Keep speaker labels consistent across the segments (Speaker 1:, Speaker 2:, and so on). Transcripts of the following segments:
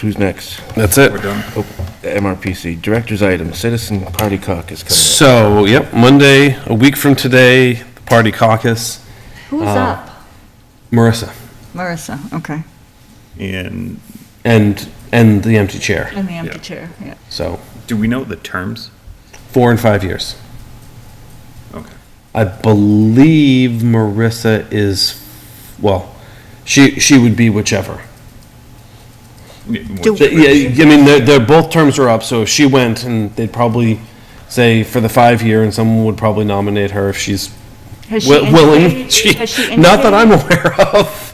Speaker 1: who's next?
Speaker 2: That's it.
Speaker 1: Oh, MRPC, Director's Item, Citizen Party Caucus coming up.
Speaker 2: So, yep, Monday, a week from today, the party caucus.
Speaker 3: Who's
Speaker 2: Uh,
Speaker 3: up?
Speaker 2: Marissa
Speaker 3: Marissa, okay.
Speaker 4: And
Speaker 2: and and the empty chair.
Speaker 3: And the empty
Speaker 4: Yeah.
Speaker 3: chair, yeah.
Speaker 2: So
Speaker 4: do we know the terms?
Speaker 2: four and five years.
Speaker 4: Okay.
Speaker 2: I believe Marissa is, well, she she would be whichever.
Speaker 4: Yeah,
Speaker 3: Do-
Speaker 4: which-
Speaker 2: Th- Yeah, I mean, they're, they're, both terms are up, so if she went, and they'd probably say for the five-year, and someone would probably nominate her if she's
Speaker 3: Has she
Speaker 2: wi- willing.
Speaker 3: indicated-
Speaker 2: She-
Speaker 3: has she
Speaker 2: Not that I'm
Speaker 3: indicated?
Speaker 2: aware of.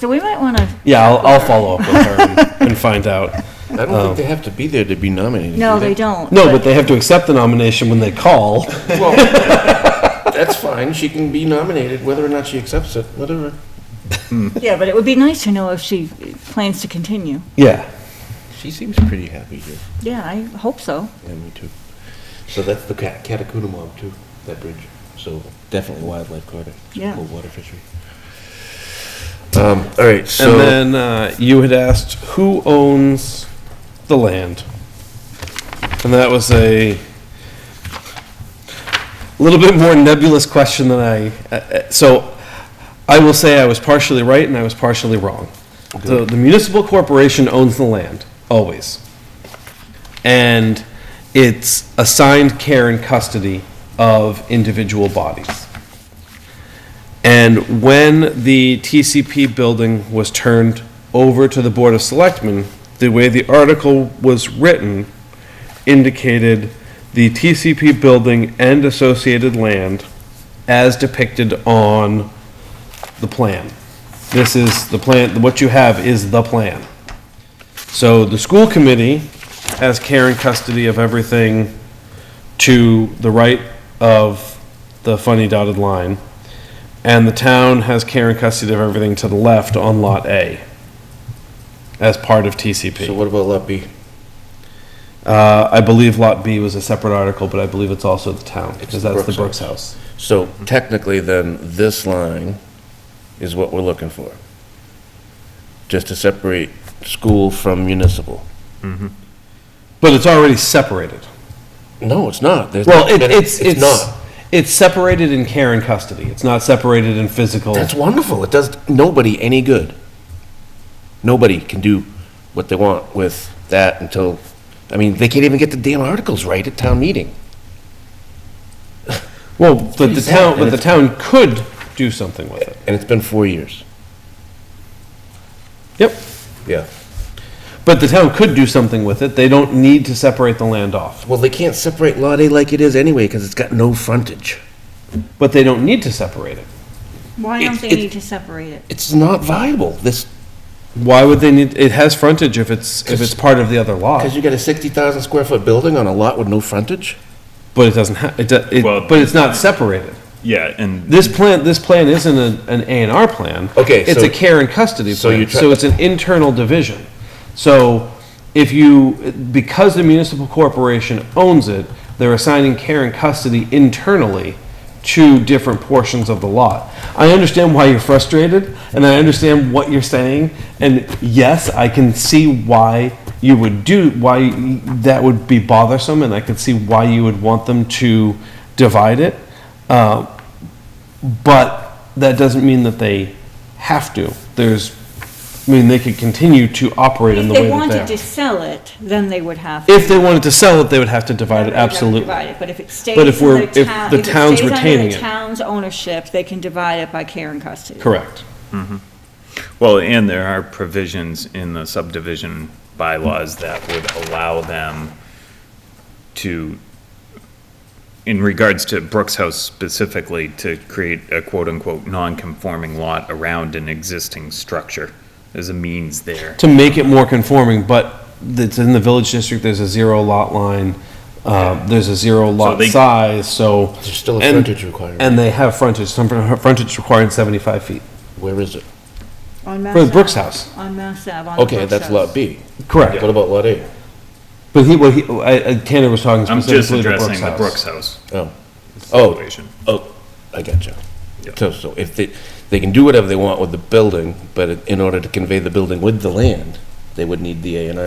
Speaker 3: So we might want to,
Speaker 2: Yeah, I'll, I'll follow up with her and- and find out.
Speaker 1: I don't think they have to be there to be nominated.
Speaker 3: no,
Speaker 1: do
Speaker 3: they don't.
Speaker 2: No, but they have to accept the nomination when they call.
Speaker 1: That's fine, she can be nominated, whether or not she accepts it, whatever.
Speaker 3: Yeah, but it would be nice to know if she plans to continue.
Speaker 2: Yeah.
Speaker 1: She seems pretty happy here,
Speaker 3: Yeah, I hope so.
Speaker 1: yeah, me too. So that's the Cat- Catacuna Mob too, that bridge, so definitely wildlife corridor.
Speaker 3: Yeah.
Speaker 1: Cool water fishery. Um, all right, so.
Speaker 2: And then uh, you had asked who owns the land. And that was a little bit more nebulous question than I. uh, uh, So I will say I was partially right and I was partially wrong. So the municipal corporation owns the land, always. And it's assigned care and custody of individual bodies. And when the TCP building was turned over to the Board of Selectmen, the way the article was written indicated the TCP building and associated land as depicted on the plan. This is the plan, what you have is the plan. So the school committee has care and custody of everything to the right of the funny dotted line. And the town has care and custody of everything to the left on Lot A as part of
Speaker 1: So
Speaker 2: TCP.
Speaker 1: what about Lot B?
Speaker 2: Uh, I believe Lot B was a separate article, but I believe it's also the town, because that's the Brooks
Speaker 1: Brooks
Speaker 2: House.
Speaker 1: So technically, then, this line is what we're looking for. Just to separate school from municipal.
Speaker 2: But it's already separated.
Speaker 1: No, it's not. There's-
Speaker 2: Well, it, it's, it's,
Speaker 1: not.
Speaker 2: it's separated in care and custody. It's not separated in physical.
Speaker 1: That's wonderful. It does nobody any good. Nobody can do what they want with that until, I mean, they can't even get the damn articles right at town meeting.
Speaker 2: Well, but the
Speaker 1: sad,
Speaker 2: town,
Speaker 1: and
Speaker 2: but the
Speaker 1: it's-
Speaker 2: town could do something with it.
Speaker 1: And it's been four years.
Speaker 2: Yep.
Speaker 1: Yeah.
Speaker 2: But the town could do something with it. They don't need to separate the land off,
Speaker 1: Well, they can't separate Lot A like it is anyway, because it's got no frontage.
Speaker 2: but they don't need to separate it.
Speaker 3: Why don't they
Speaker 1: It- it-
Speaker 3: need to separate it?
Speaker 1: It's not viable, this,
Speaker 2: Why would they need, it has frontage if it's, if it's part of the other
Speaker 1: because
Speaker 2: lot,
Speaker 1: you got a sixty thousand square foot building on a lot with no frontage?
Speaker 2: but it doesn't ha, it, do- it,
Speaker 4: Well-
Speaker 2: but it's not separated.
Speaker 4: Yeah, and
Speaker 2: This plan, this plan isn't a- an A and R plan.
Speaker 1: Okay,
Speaker 2: It's
Speaker 1: so-
Speaker 2: a care and custody
Speaker 1: so you
Speaker 2: plan,
Speaker 1: try-
Speaker 2: so it's an internal division. So if you, because the municipal corporation owns it, they're assigning care and custody internally to different portions of the lot. I understand why you're frustrated, and I understand what you're saying, and yes, I can see why you would do, why that would be bothersome, and I can see why you would want them to divide it. Uh, but that doesn't mean that they have to. There's, I mean, they could continue to operate in
Speaker 3: If
Speaker 2: the
Speaker 3: they
Speaker 2: way that
Speaker 3: wanted
Speaker 2: they
Speaker 3: to
Speaker 2: are.
Speaker 3: sell it, then they would have. to.
Speaker 2: If they wanted to sell it, they would have to divide it,
Speaker 3: They'd have to
Speaker 2: absolutely.
Speaker 3: divide it, But if it stays
Speaker 2: But
Speaker 3: under
Speaker 2: if we're,
Speaker 3: the
Speaker 2: if
Speaker 3: town.
Speaker 2: the
Speaker 3: it
Speaker 2: town's
Speaker 3: stays under
Speaker 2: retaining
Speaker 3: the
Speaker 2: it,
Speaker 3: town's ownership, they can divide it by care and custody.
Speaker 2: correct.
Speaker 4: well, and there are provisions in the subdivision bylaws that would allow them to, in regards to Brooks House specifically, to create a quote-unquote non-conforming lot around an existing structure. There's a means there.
Speaker 2: To make it more conforming, but it's in the village district, there's a zero lot line, uh, there's a zero lot
Speaker 4: they-
Speaker 2: size, so.
Speaker 1: There's still a
Speaker 2: and-
Speaker 1: frontage requirement.
Speaker 2: And they have frontage, some frontage requiring seventy-five feet.
Speaker 1: Where is it?
Speaker 3: On Mass
Speaker 2: For the
Speaker 3: Ave.
Speaker 2: Brooks House.
Speaker 3: On Mass Ave, on the
Speaker 1: Okay,
Speaker 3: Brooks
Speaker 1: that's
Speaker 3: House.
Speaker 1: Lot B.
Speaker 2: Correct.
Speaker 1: What about Lot A?
Speaker 2: But he, what he, I, I- Tanner was talking
Speaker 4: I'm just
Speaker 2: specifically to Brooks House.
Speaker 4: addressing the Brooks House
Speaker 1: Oh, oh,
Speaker 4: situation.
Speaker 1: oh, I gotcha.
Speaker 4: Yeah.
Speaker 1: So, so if they, they can do whatever they want with the building, but in order to convey the building with the land, they would need the A and R